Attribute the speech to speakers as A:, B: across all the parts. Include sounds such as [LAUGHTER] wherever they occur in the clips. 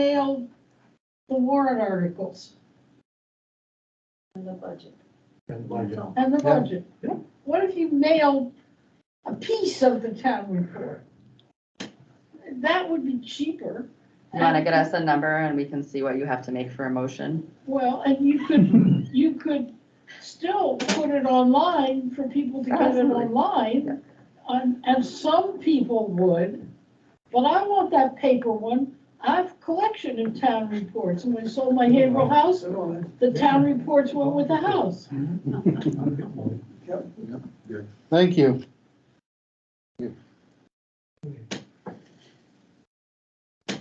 A: mailed the warrant articles
B: in the budget.
C: And
B: That's
C: budget.
B: all.
A: and the
C: Yeah,
A: budget.
C: yeah.
A: What if you mailed a piece of the town report? That would be cheaper.
D: You want to get us a number and we can see what you have to make for a motion?
A: Well, and you could, you could still put it online for people to get it
D: Absolutely. Yeah.
A: online. And, and some people would, but I want that paper one. I have a collection of town reports, and when I sold my Haverhill house, the town reports went with the house.
E: Thank you.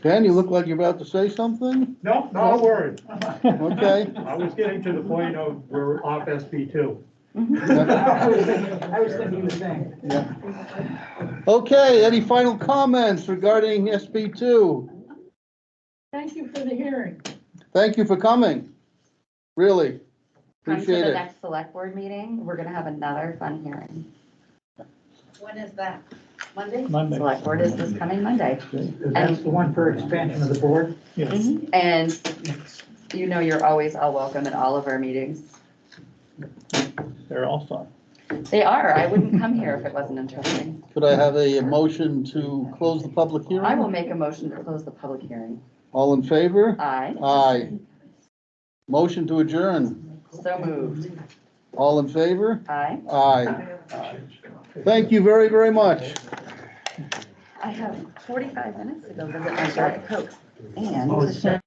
E: Dan, you look like you're about to say something?
C: No, not a word.
E: Okay.
C: I was getting to the point of we're off SB two.
E: I
C: [LAUGHS]
F: was thinking he was saying.
E: Okay, any final comments regarding SB two?
A: Thank you for the hearing.
E: Thank you for coming. Really,
D: Come to
E: appreciate
D: the
E: it.
D: next select board meeting, we're gonna have another fun hearing.
B: When is that? Monday?
D: Select board is this coming Monday.
F: That's the one for expansion of the board.
D: And you know you're always all welcome at all of our meetings.
G: They're all fun.
D: They are, I wouldn't come here if it wasn't interesting.
E: Could I have a motion to close the public
D: I will
E: hearing?
D: make a motion to close the public hearing.
E: All in favor?
D: Aye,
E: Aye. Motion to adjourn.
D: so moved.
E: All in favor?
D: Aye.
E: Aye. Thank you very, very much.
G: Oh,
D: I have 45 minutes to go visit my Diet Coke and the